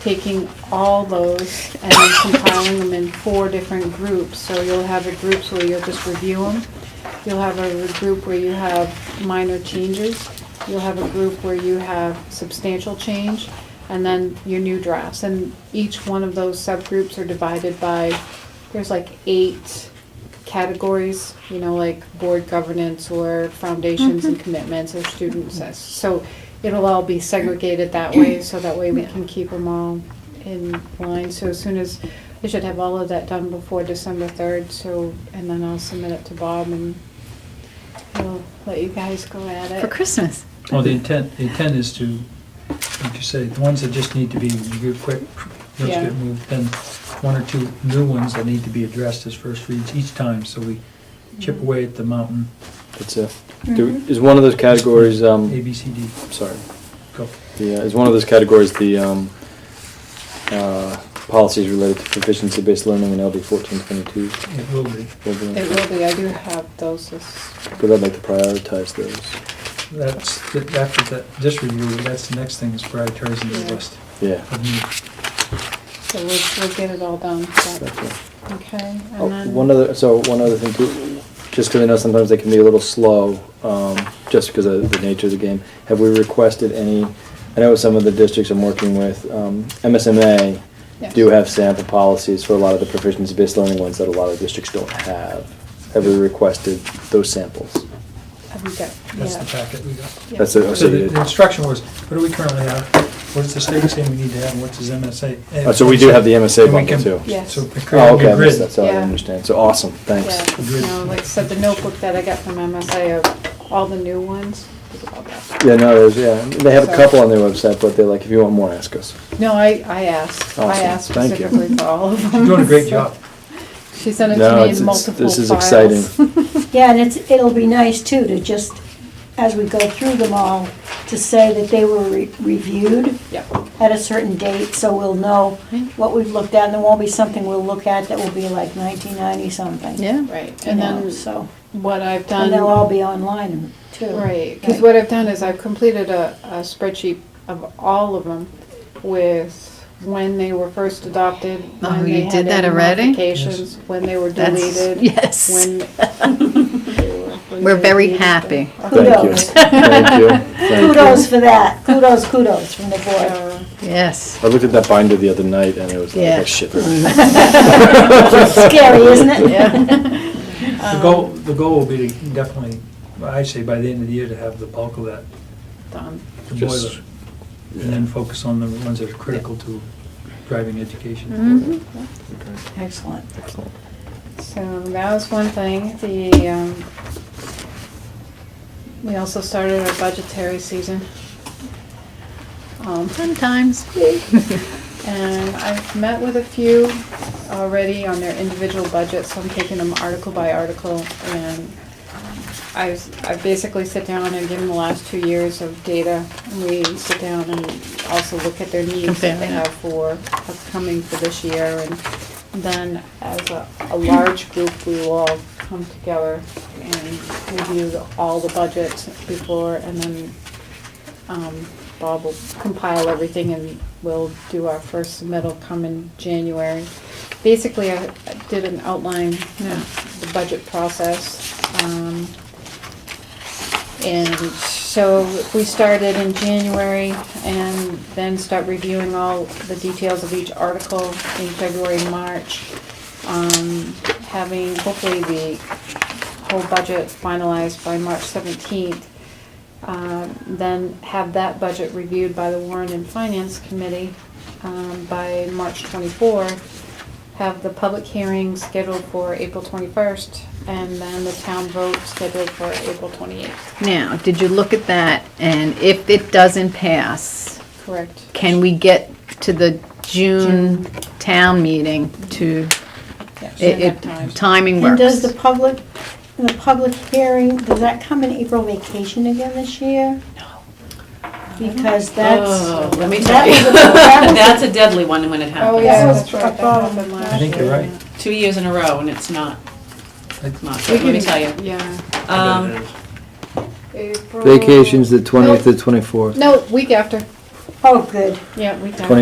taking all those and then compiling them in four different groups. So you'll have a group where you'll just review them. You'll have a group where you have minor changes. You'll have a group where you have substantial change, and then your new drafts. And each one of those subgroups are divided by, there's like eight categories, you know, like board governance or foundations and commitments or student success. So it'll all be segregated that way, so that way we can keep them all in line. So as soon as, I should have all of that done before December third, so, and then I'll submit it to Bob and we'll let you guys go at Uh, it. for Christmas. Well, the intent, the intent is to, like you say, the ones that just need to be reviewed quick, those Yeah. get moved, then one or two new ones that need to be addressed as first reads each time, so we Mm-hmm. chip away at the mountain, It's a, do- is one of those categories, A, um, B, C, D, sorry, go. the, uh, is one of those categories the, um, uh, policies related to proficiency-based learning in LD fourteen twenty-two? It will be. It will be, I do have those, this- Because I'd like to prioritize those. That's, that- after that, this review, that's the next thing is prioritizing Yeah. the list. Yeah. of new- so we'll, we'll get it all done, so, that's it. okay? and Oh, then- One other, so one other thing too, just because I know sometimes they can be a little slow, um, just because of the nature of the game. Have we requested any, I know some of the districts I'm working with, um, MSMA Yes. do have sample policies for a lot of the proficiency-based learning ones that a lot of districts don't have. Have we requested those samples? Have you got- That's the yeah, packet we got. yeah. That's it, So so the you the instruction was, what do we currently have? What is the state saying we need to have, and what's his MSA? Oh, so we do have the MSA And we bundle can- too. Yes. So we Oh, create okay, a I missed grid. that, so I Yeah. didn't understand. So, awesome, thanks. Yeah, you know, like I said, the notebook that I got from MSI of all the new ones. is all that. Yeah, no, there's, yeah, they have a So- couple on their website, but they're like, if you want more, ask us. No, I, I asked, I Awesome. asked Thank you. specifically for all of them. You're doing a great so- job. She sent it No, to me it's- in it's- multiple this is files. exciting. Yeah, and it's, it'll be nice too to just, as we go through them all, to say that they were re- reviewed Yep, at a certain date, so we'll know what we've looked at, and there won't be something we'll look at that will be like nineteen ninety something. right, You and know, then so, what I've and they'll all done, be online too. right, because what I've done is I've completed a, a spreadsheet of all of them with when they were first adopted, Oh, when you they had did that any already? modifications, when they were That's- deleted. yes. When. they were- when We're they very needed to- happy. Thank you. Kudos. Thank you. Thank you. Kudos for that, kudos, kudos from the board. So- Yes. I looked at that binder the other night and it was like, Yeah. oh shit. Well, Scary, isn't it? Um, The goal, the goal will be to definitely, I say by the end of the year, to have the bulk of that, done. the Just- boiler. And then focus on the ones that are critical to driving education. Mm-hmm. Mhm. Excellent. Excellent. So that was one thing. The, um, we also started our budgetary season. Um, Sometimes. and I've met with a few already on their individual budgets, so I'm taking them article by article. And I, s- I basically sit down and give them the last two years of data. and We sit down and also look at their needs that they Compare. have for upcoming for this year. And then as a, a large group, we will all come together and review the- all the budgets before and then um, Bob will compile everything and we'll do our first submittal come in January. Basically, I I did an outline Yeah. of the budget process. um, And so if we started in January and then start reviewing all the details of each article in February, March, um, having hopefully the whole budget finalized by March 17th, um, then have that budget reviewed by the Warren and Finance Committee um, by March 24, have the public hearing scheduled for April 21st, and then the town vote scheduled for April 28th. Now, did you look at that? And if it doesn't pass, Correct. can we get to the June town meeting to, Yeah, should it, have it- time. timing And works? does the public, the public hearing, does that come in April vacation again this year? No. Because that's, Oh, let me that tell was you. a, that That's a deadly one when it Oh, happens. yeah, was that's right, that above. happened last I think you're year, right. yeah. Two years in a row and it's not, I- not We good, let can- me tell you. Yeah. Um, April- Vacation's the twentieth to twenty-fourth. No, week after, was, oh, good. yeah, week after.